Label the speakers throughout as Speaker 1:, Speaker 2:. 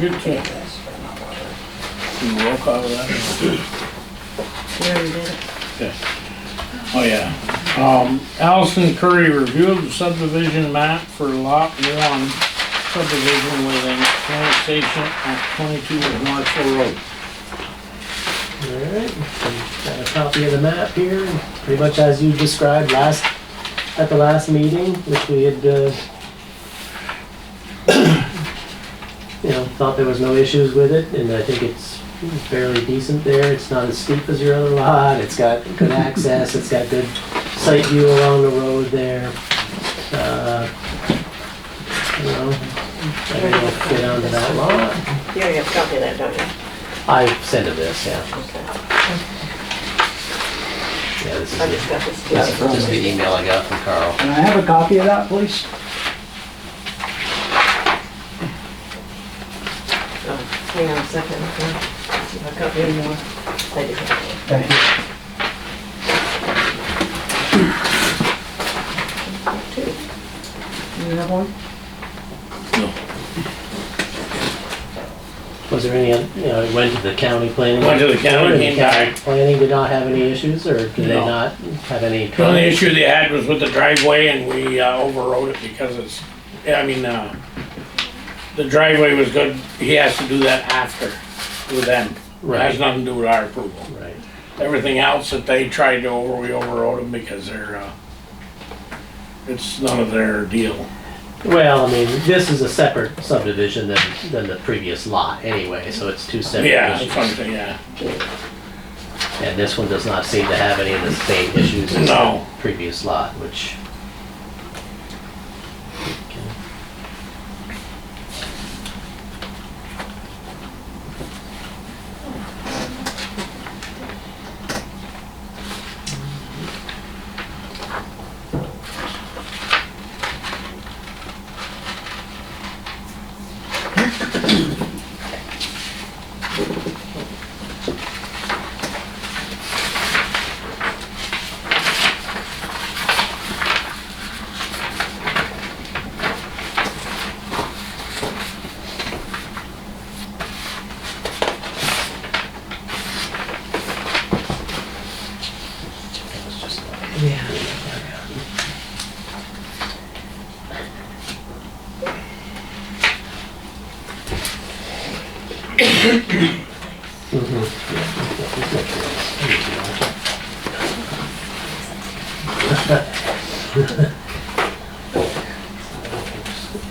Speaker 1: did too.
Speaker 2: Do roll call of that?
Speaker 1: We already did it.
Speaker 2: Oh, yeah. Um, Allison Curry reviewed the subdivision map for lot one subdivision within current station at twenty-two of Marshall Road.
Speaker 3: Alright, got a copy of the map here, pretty much as you described last, at the last meeting, which we had, uh, you know, thought there was no issues with it, and I think it's fairly decent there, it's not as steep as your other lot, it's got good access, it's got good sight view along the road there. Uh, You know, I don't know if you get onto that lot.
Speaker 4: You already have a copy of that, don't you?
Speaker 3: I sent it this, yeah,
Speaker 4: Okay.
Speaker 3: yeah, this is
Speaker 4: I
Speaker 3: it.
Speaker 4: just got this.
Speaker 3: That's just the email I got from Carl.
Speaker 5: Can I have a copy of that, please?
Speaker 4: Oh, Hang on a second. okay. See if I got any more. I do have
Speaker 5: Thank you.
Speaker 4: two.
Speaker 1: You have one?
Speaker 3: Was there any, oth- you know, it went to the county planning?
Speaker 2: Went to the county,
Speaker 3: Did
Speaker 2: came back.
Speaker 3: Planning did not have any issues, or did they
Speaker 2: No.
Speaker 3: not have any?
Speaker 2: The only issue they had was with the driveway and we uh, overrode it because it's, I mean, uh, the driveway was good, he has to do that after with them. It has
Speaker 3: Right.
Speaker 2: nothing to do with our approval.
Speaker 3: Right,
Speaker 2: Everything else that they tried to over, we overrode them because they're, uh, it's none of their deal.
Speaker 3: well, I mean, this is a separate subdivision than, than the previous lot anyway, so it's two separate
Speaker 2: Yeah,
Speaker 3: issues.
Speaker 2: that's what I'm saying, yeah.
Speaker 3: And this one does not seem to have any of the same issues as the
Speaker 2: No.
Speaker 3: previous lot, which.
Speaker 4: Yeah.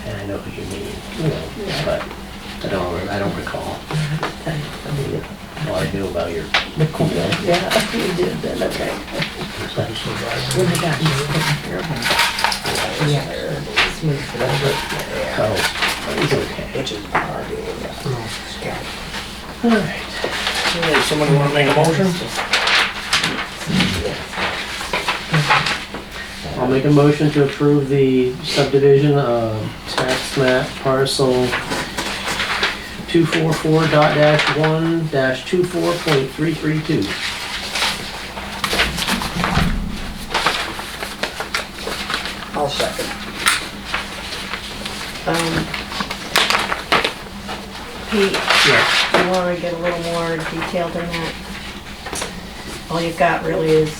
Speaker 3: And I know who you mean, you know, but I don't, re- I don't recall. All I knew about your.
Speaker 4: Yeah, you did then, okay. When I got you.
Speaker 3: Oh, it's okay.
Speaker 5: Which is our deal, yeah.
Speaker 3: All right.
Speaker 2: Hey, Somebody wanna make a motion?
Speaker 3: I'll make a motion to approve the subdivision of tax map parcel two four four dot dash one dash two four point three three two.
Speaker 5: I'll second.
Speaker 4: Um, Pete,
Speaker 3: Yes.
Speaker 4: you wanna get a little more detailed in that? All you've got really is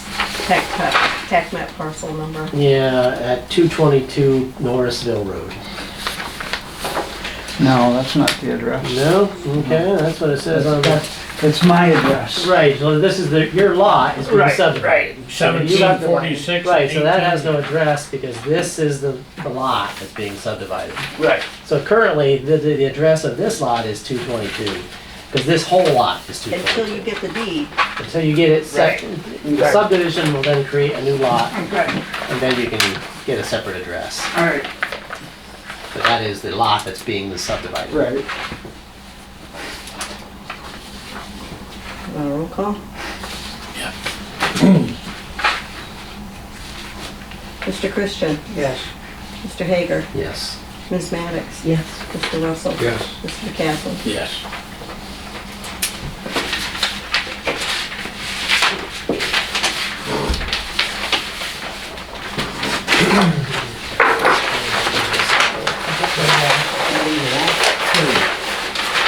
Speaker 4: tax, map- tax map parcel number.
Speaker 3: Yeah, at two twenty-two Norrisville Road.
Speaker 5: No, that's not the address.
Speaker 3: No? Okay, that's what it says on the.
Speaker 5: It's my address.
Speaker 3: Right, so this is the, your lot is being subdivided. You
Speaker 2: Seventeen
Speaker 3: got the-
Speaker 2: forty-six.
Speaker 3: Right, so that has no address because this is the, the lot that's being subdivided.
Speaker 2: Right.
Speaker 3: So currently, the, the, the address of this lot is two twenty-two, because this whole lot is two
Speaker 4: Until you
Speaker 3: twenty-two.
Speaker 4: get the deed,
Speaker 3: Until you get it set, the subdivision will then create a new lot,
Speaker 5: Okay,
Speaker 3: and then you can get a separate address.
Speaker 5: all right.
Speaker 3: But that is the lot that's being subdivided.
Speaker 5: Right.
Speaker 4: uh, roll call?
Speaker 2: Yeah.
Speaker 4: Mr. Christian,
Speaker 5: Yes.
Speaker 4: Mr. Hager,
Speaker 3: Yes.
Speaker 4: Ms. Maddox. Yes. Mr. Russell.
Speaker 6: Yes.
Speaker 4: Mr. McCaslin.
Speaker 2: Yes.